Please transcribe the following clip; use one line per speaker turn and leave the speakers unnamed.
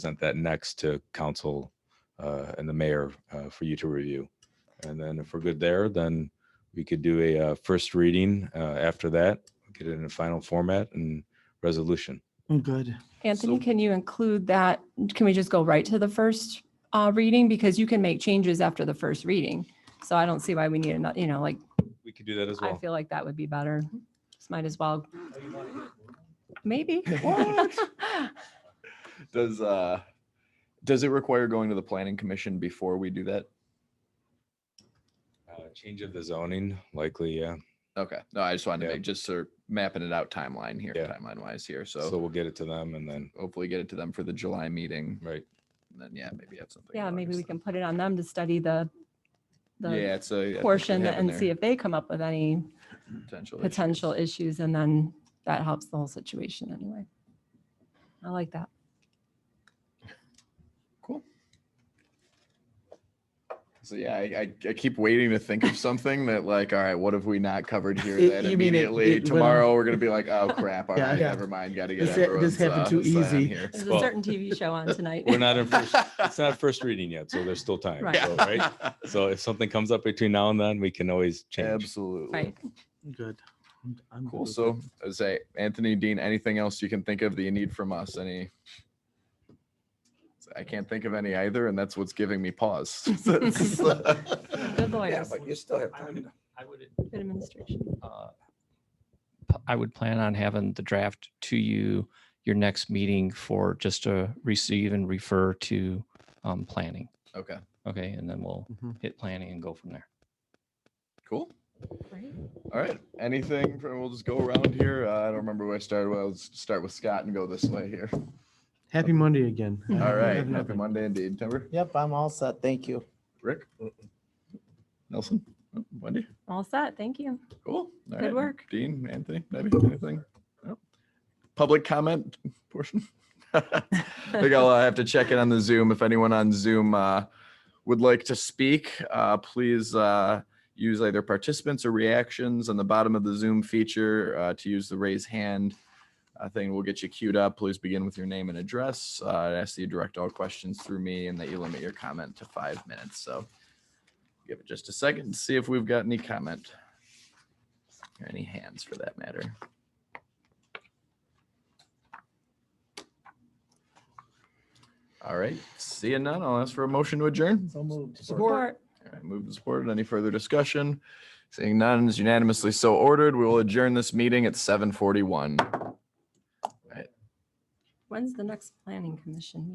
present that next to council uh, and the mayor uh, for you to review. And then if we're good there, then we could do a uh, first reading uh, after that, get it in a final format and resolution.
Good.
Anthony,
So-
can you include that? Can we just go right to the first uh, reading? Because you can make changes after the first reading. So I don't see why we need another, you know, like,
We could do that as
I
well.
feel like that would be better. Just might as well. Maybe.
What? Does uh does it require going to the planning commission before we do that?
Uh, Change of the zoning, likely, yeah.
Okay. No, I just wanted
Yeah.
to make just sort of mapping it out timeline here,
Yeah.
timeline wise here. So,
So we'll get it to them and then,
hopefully get it to them for the July meeting.
right,
And then yeah, maybe have something.
Yeah,
in
maybe we
August
can put it on them to study the,
then.
the
yeah, it's a
portion and see if they come up with any
potential issues.
potential issues. And then that helps the whole situation anyway. I like that.
Cool. So yeah, I, I, I keep waiting to think of something that like, all right, what have we not covered here?
It-
That
you mean it-
immediately
it will-
tomorrow we're gonna be like, oh crap, all
Yeah,
right,
yeah.
never mind, gotta get
This ha-
everyone's.
this happened
uh,
too
sign
easy.
here.
There's
Well-
a certain TV show on tonight.
we're not in first, it's not first reading yet, so there's still time.
Right.
so, Right. So if something comes up between now and then, we can always change.
Absolutely.
Right.
Good. I'm- I'm good
Cool.
with it.
So I would say, Anthony, Dean, anything else you can think of that you need from us? Any? I can't think of any either, and that's what's giving me pause.
Good lawyers,
but you still have
I
time.
would, I would,
good administration.
uh, p- I would plan on having the draft to you, your next meeting for just to receive and refer to, um, planning.
Okay.
Okay, and then we'll
Mhm.
hit planning and go from there.
Cool.
Great.
All right. Anything? from- We'll just go around here. Uh, I don't remember where I started. Well, let's start with Scott and go this way here.
Happy Monday again. I
All
have
right. Happy
nothing.
Monday indeed. Timber,
Yep, I'm all set. Thank you.
Rick, Nelson, Oh, Wendy.
All set. Thank you.
Cool. All
Good
right.
work.
Dean, Anthony, maybe anything? No? Public comment portion? I think I'll uh, have to check in on the Zoom. If anyone on Zoom uh, would like to speak, uh, please uh, use either participants or reactions on the bottom of the Zoom feature uh, to use the raise hand uh, thing. We'll get you queued up. Please begin with your name and address. Uh, I ask that you direct all questions through me and that you limit your comment to five minutes. So give it just a second and see if we've got any comment or any hands for that matter. All right, seeing none, I'll ask for a motion to adjourn.
So moved.
Support.
All right, moved and supported. Any further discussion? Seeing none is unanimously so ordered. We will adjourn this meeting at seven forty-one.
When's the next planning commission?